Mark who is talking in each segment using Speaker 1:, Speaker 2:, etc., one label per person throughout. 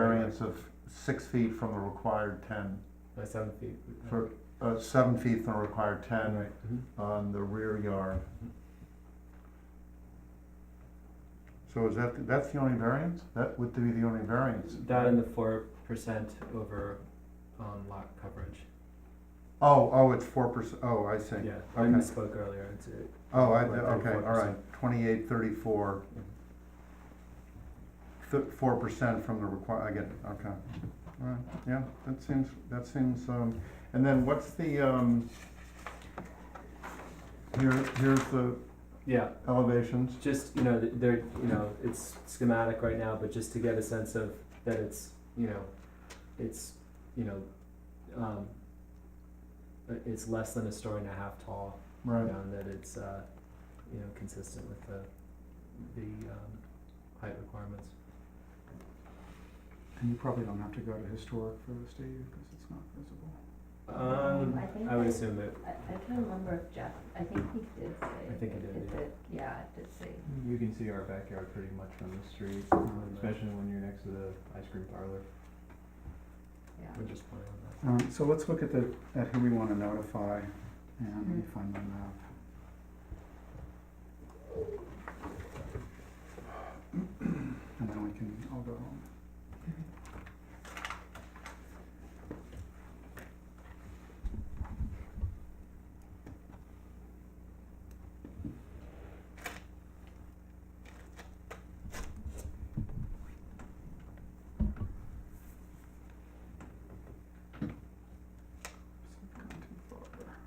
Speaker 1: size of six feet from the required ten,
Speaker 2: by seven feet.
Speaker 1: for, uh, seven feet from the required
Speaker 2: All
Speaker 1: ten
Speaker 2: right, mhm.
Speaker 1: on the rear yard. So is that, that's the only variance? That would be the only variance?
Speaker 2: That and the four percent over um, lot coverage.
Speaker 1: Oh, oh, it's four percent, oh, I see.
Speaker 2: Yeah, I
Speaker 1: okay.
Speaker 2: misspoke earlier. It's, uh,
Speaker 1: Oh, I,
Speaker 2: Like
Speaker 1: okay, all
Speaker 2: 34%.
Speaker 1: right, twenty-eight, thirty-four. Four percent from the require, I get it, okay. All right, yeah, that seems, that seems, um, and then what's the, um, here, here's the
Speaker 2: yeah,
Speaker 1: elevations.
Speaker 2: just you know, th- they're you know, it's schematic right now, but just to get a sense of that it's you know, it's you know, um, uh, it's less than a story and a half tall, you
Speaker 1: Right,
Speaker 2: know, and that it's uh, you know consistent with the the um, height requirements.
Speaker 3: And you probably don't have to go to historic for this, do you? Because it's not visible.
Speaker 2: Um,
Speaker 4: I think
Speaker 2: I would
Speaker 4: I-
Speaker 2: assume it.
Speaker 4: I, I can't remember if Jeff, I think he did say.
Speaker 2: I think he did, yeah.
Speaker 4: it- Yeah, it did say.
Speaker 5: You can see our backyard pretty much from the street,
Speaker 4: Mm-hmm.
Speaker 5: especially when you're next to the ice cream parlor.
Speaker 4: yeah.
Speaker 2: We're just playing on that.
Speaker 3: Um, so let's look at the, at who we want to notify, and let me find my map. And then we can, I'll go home. I've gone too far.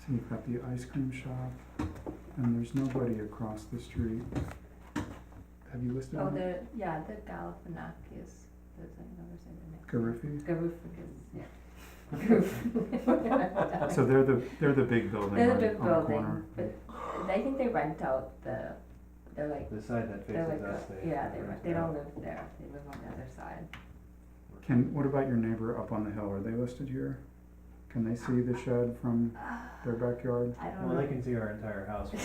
Speaker 3: So you've got the ice cream shop, and there's nobody across the street. Have you listed
Speaker 4: Oh,
Speaker 3: on it?
Speaker 4: the, yeah, the Galifianakis, there's another thing in it.
Speaker 3: Gariffi?
Speaker 4: Garufakis, yeah. Garuf.
Speaker 3: So they're the, they're the big building
Speaker 4: They're the
Speaker 3: right
Speaker 4: big
Speaker 3: on the
Speaker 4: building,
Speaker 3: corner.
Speaker 4: but I think they rent out the, they're like,
Speaker 5: The side that
Speaker 4: they're like,
Speaker 5: faces us,
Speaker 4: a-
Speaker 5: they.
Speaker 4: yeah, they, rent- they
Speaker 5: rent
Speaker 4: don't
Speaker 5: out.
Speaker 4: live there, they live on the other side.
Speaker 3: Can, what about your neighbor up on the hill? Are they listed here? Can they see the shed from their backyard?
Speaker 4: I don't
Speaker 5: Well, they
Speaker 4: know,
Speaker 5: can see our entire house. from-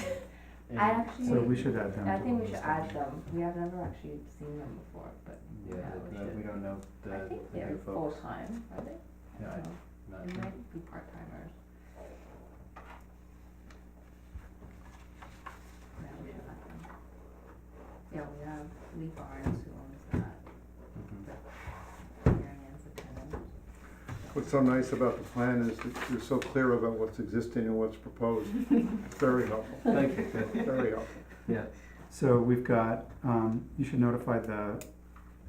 Speaker 5: and-
Speaker 4: I actually-
Speaker 3: So we should add them to
Speaker 4: I think
Speaker 3: the
Speaker 4: we should
Speaker 3: list,
Speaker 4: add
Speaker 3: actually.
Speaker 4: them, we have never actually seen them before, but
Speaker 5: Yeah,
Speaker 4: yeah,
Speaker 5: but,
Speaker 4: we
Speaker 5: uh,
Speaker 4: should.
Speaker 5: we don't know the,
Speaker 4: I think
Speaker 5: the
Speaker 4: they're
Speaker 5: new
Speaker 4: full
Speaker 5: folks.
Speaker 4: time, are they?
Speaker 5: Yeah, I-
Speaker 4: No,
Speaker 5: not
Speaker 4: They
Speaker 5: sure.
Speaker 4: might be part timers. Yeah, we should let them. Yeah, we have Lee Barnes who owns that,
Speaker 5: Mhm.
Speaker 4: Marion Ann's a tenant.
Speaker 1: what's so nice about the plan is that you're so clear about what's existing and what's proposed. Very helpful,
Speaker 5: Thank you. Good.
Speaker 1: very helpful.
Speaker 3: So we've got, um, you should notify the,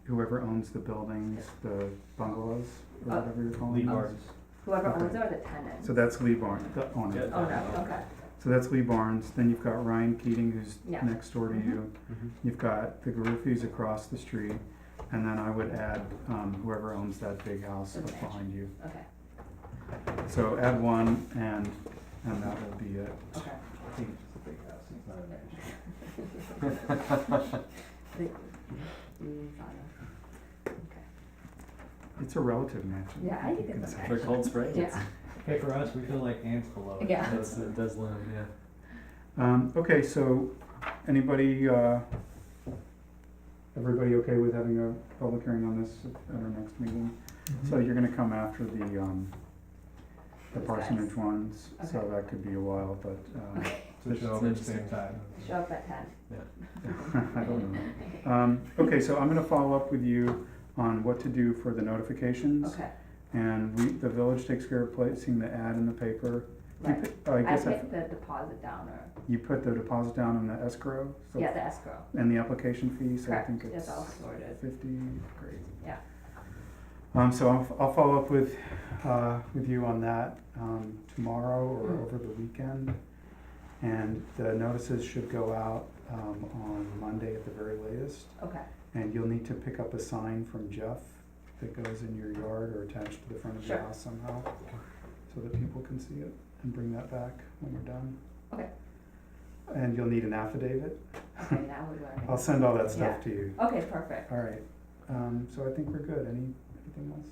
Speaker 3: whoever owns the buildings, the bungalows, or
Speaker 4: Uh,
Speaker 3: whatever you're calling
Speaker 5: Lee
Speaker 3: them.
Speaker 5: Barnes.
Speaker 4: Whoever
Speaker 3: Okay.
Speaker 4: owns it are the tenants.
Speaker 3: So that's Lee Barnes, the
Speaker 5: Yeah.
Speaker 3: owner.
Speaker 4: Oh, no, okay,
Speaker 3: So that's Lee Barnes, then you've got Ryan Keating, who's
Speaker 4: Yeah.
Speaker 3: next door to
Speaker 4: Mhm.
Speaker 3: you.
Speaker 5: Mhm.
Speaker 3: You've got the Garuffis across the street, and then I would add, um, whoever owns that big house up
Speaker 4: Okay.
Speaker 3: behind you.
Speaker 4: okay,
Speaker 3: So add one and, and that will be it.
Speaker 4: okay.
Speaker 5: I think it's just a big house, it's not an issue.
Speaker 4: Mm, got it.
Speaker 3: It's a relative mansion.
Speaker 4: Yeah, I think
Speaker 3: you can
Speaker 4: it's
Speaker 3: say.
Speaker 4: okay.
Speaker 2: For Cold Spring, it's,
Speaker 4: Yeah,
Speaker 5: Hey, for us, we feel like ants below it.
Speaker 4: yeah.
Speaker 2: it's, it does loom, yeah.
Speaker 3: Um, okay, so anybody, uh, everybody okay with having a public hearing on this at our next meeting? So you're gonna come after the, um, the
Speaker 4: Mm-hmm. Those
Speaker 3: parsonage
Speaker 4: guys.
Speaker 3: ones, so
Speaker 4: Okay.
Speaker 3: that could be a while, but, uh,
Speaker 5: So it's all at the same time.
Speaker 4: Show up at ten.
Speaker 3: I don't know. Um, okay, so I'm gonna follow up with you on what to do for the notifications.
Speaker 4: Okay,
Speaker 3: And we, the village takes care of placing the ad in the paper. You
Speaker 4: right.
Speaker 3: put- I
Speaker 4: I
Speaker 3: guess I-
Speaker 4: picked the deposit down or,
Speaker 3: you put the deposit down on the escrow, so,
Speaker 4: yeah, the escrow.
Speaker 3: and the application fee, so I
Speaker 4: Correct,
Speaker 3: think it's.
Speaker 4: that's all sorted.
Speaker 3: Fifty, great.
Speaker 4: Yeah.
Speaker 3: Um, so I'll, I'll follow up with, uh, with you on that, um, tomorrow or
Speaker 4: Mm.
Speaker 3: over the weekend. And the notices should go out, um, on Monday at the very latest.
Speaker 4: Okay,
Speaker 3: And you'll need to pick up a sign from Jeff that goes in your yard or attached to the front of your
Speaker 4: Sure.
Speaker 3: house somehow. So that people can see it and bring that back when we're done.
Speaker 4: Okay.
Speaker 3: And you'll need an affidavit.
Speaker 4: okay, now we're learning.
Speaker 3: I'll send all that stuff to you.
Speaker 4: Okay, perfect.
Speaker 3: All right, um, so I think we're good, any, anything else?